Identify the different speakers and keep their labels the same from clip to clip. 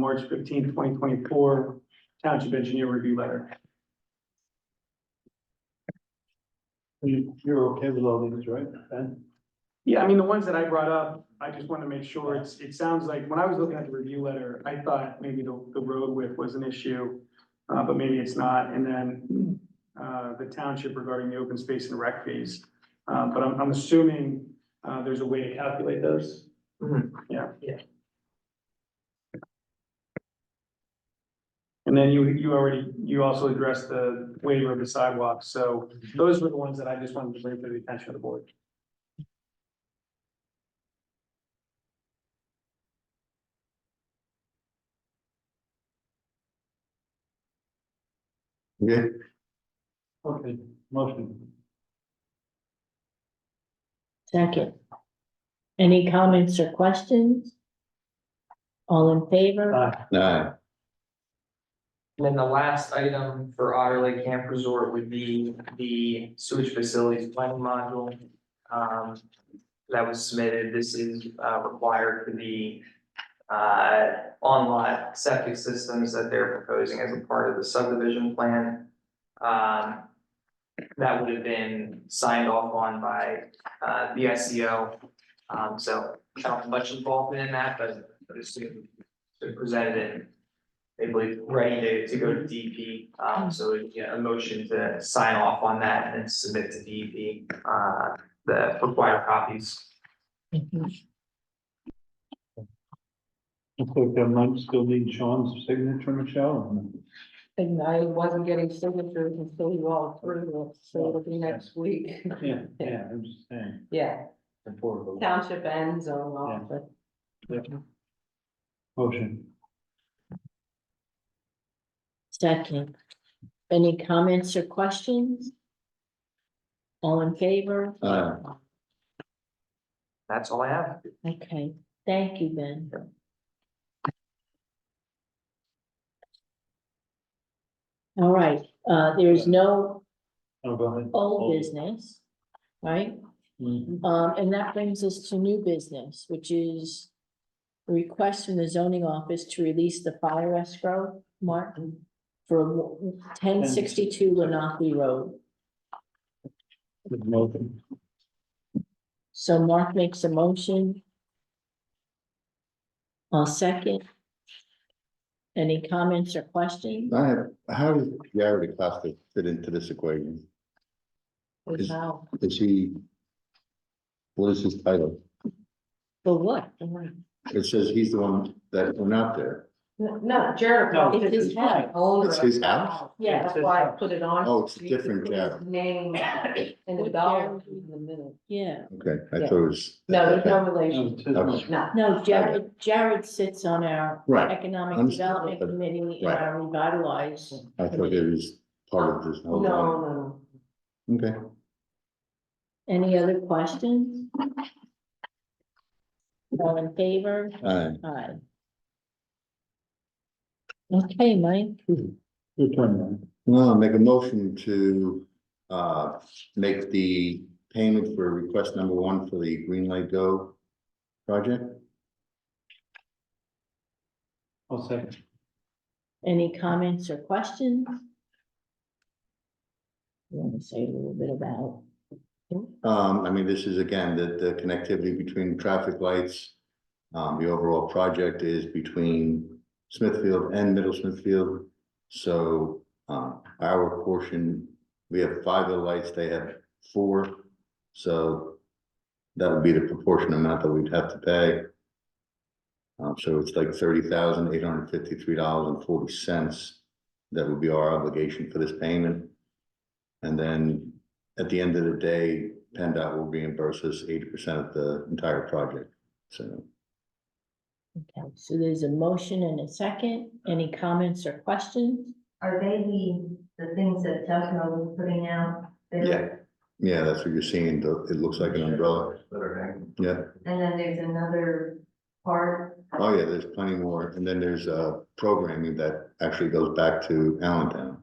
Speaker 1: March fifteenth, twenty twenty-four, Township Engineer Review Letter.
Speaker 2: You, you're okay with all these, right, Ben?
Speaker 1: Yeah, I mean, the ones that I brought up, I just want to make sure it's, it sounds like, when I was looking at the review letter, I thought maybe the, the road width was an issue. Uh, but maybe it's not, and then, uh, the township regarding the open space and rec fees. Uh, but I'm, I'm assuming, uh, there's a way to calculate those. And then you, you already, you also addressed the waiver of the sidewalks, so those were the ones that I just wanted to bring to the attention of the board.
Speaker 3: Okay,
Speaker 2: Okay, motion.
Speaker 4: Second. Any comments or questions? All in
Speaker 5: Uh,
Speaker 4: favor?
Speaker 2: Aye.
Speaker 3: aye,
Speaker 6: And then the last item for Otter Lake Camp Resort would be the sewage facilities planning module. um, that was submitted, this is, uh, required for the, uh, on-lot septic systems that they're proposing as a part of the subdivision plan. Um, that would have been signed off on by, uh, the SEO, um, so I don't have much involvement in that, but I assume they presented it they believe ready to to go to DP, um so yeah, a motion to sign off on that and then submit to DP uh the required copies.
Speaker 2: Looks like that might still need Sean's signature, Michelle.
Speaker 5: And I wasn't getting signatures until you all through, so it'll be next week.
Speaker 2: Yeah, yeah, I'm just saying.
Speaker 5: Yeah,
Speaker 2: Affordable.
Speaker 5: township ends zone office.
Speaker 2: Motion.
Speaker 4: Second. Any comments or questions? All in favor?
Speaker 3: aye.
Speaker 6: That's all I have.
Speaker 4: Okay, thank you, Ben. All right, uh, there is no
Speaker 2: Oh, go ahead.
Speaker 4: old business, right?
Speaker 2: Mhm.
Speaker 4: Um, and that brings us to new business, which is a request from the zoning office to release the fire escrow, Mark, for ten sixty-two Lenape Road.
Speaker 2: Good Motion.
Speaker 4: So Mark makes a motion. I'll second. Any comments or questions?
Speaker 3: I have, how does Gary DeCosta fit into this equation? Is-
Speaker 4: Wow,
Speaker 3: Is he? What is his title?
Speaker 4: For what?
Speaker 3: It says he's the one that went out there.
Speaker 5: No, Jared.
Speaker 2: No,
Speaker 4: it's his house.
Speaker 5: Owner
Speaker 3: It's
Speaker 5: of
Speaker 3: his
Speaker 5: the
Speaker 3: house?
Speaker 4: Yeah,
Speaker 5: That's why I put it on.
Speaker 3: Oh, it's a different
Speaker 5: His
Speaker 3: Jared.
Speaker 5: Name and the
Speaker 4: With
Speaker 5: dollar
Speaker 4: Jared.
Speaker 5: in the middle.
Speaker 4: Yeah,
Speaker 3: Okay, I
Speaker 5: Yeah.
Speaker 3: thought it was.
Speaker 5: No, there's no
Speaker 2: No,
Speaker 5: relation,
Speaker 2: it's his motion.
Speaker 5: no.
Speaker 4: no, Jared, Jared sits on our
Speaker 3: Right,
Speaker 4: Economic
Speaker 3: Understood.
Speaker 4: Development Committee and
Speaker 3: Right.
Speaker 4: our revitalize.
Speaker 3: I thought it was part of this
Speaker 5: No,
Speaker 3: whole.
Speaker 5: no,
Speaker 3: thing. Okay,
Speaker 4: Any other questions? All in favor?
Speaker 3: aye,
Speaker 4: Aye. Okay, Mike,
Speaker 2: Your turn, man.
Speaker 3: no, make a motion to, uh, make the payment for request number one for the Green Light Go project.
Speaker 2: I'll second.
Speaker 4: any comments or questions? You want to say a little bit about?
Speaker 3: Um, I mean, this is again, the, the connectivity between traffic lights. Um, the overall project is between Smithfield and Middle Smithfield. So, um, our portion, we have five of the lights, they have four. So that would be the proportion amount that we'd have to pay. Um, so it's like thirty thousand eight hundred fifty-three dollars and forty cents. That would be our obligation for this payment. And then at the end of the day, PennDOT will reimburse us eighty percent of the entire project, so.
Speaker 4: Okay, so there's a motion and a second. Any comments or questions?
Speaker 7: Are they the, the things that Tecno was putting out? They-
Speaker 3: Yeah, that's what you're seeing, the- it looks like an umbrella, yeah,
Speaker 7: And then there's another part,
Speaker 3: oh yeah, there's plenty more, and then there's, uh, programming that actually goes back to Allentown.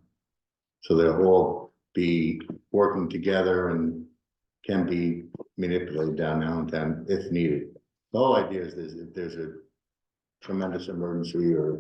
Speaker 3: So they'll all be working together and can be manipulated down in Allentown if needed. The whole idea is, is if there's a tremendous emergency or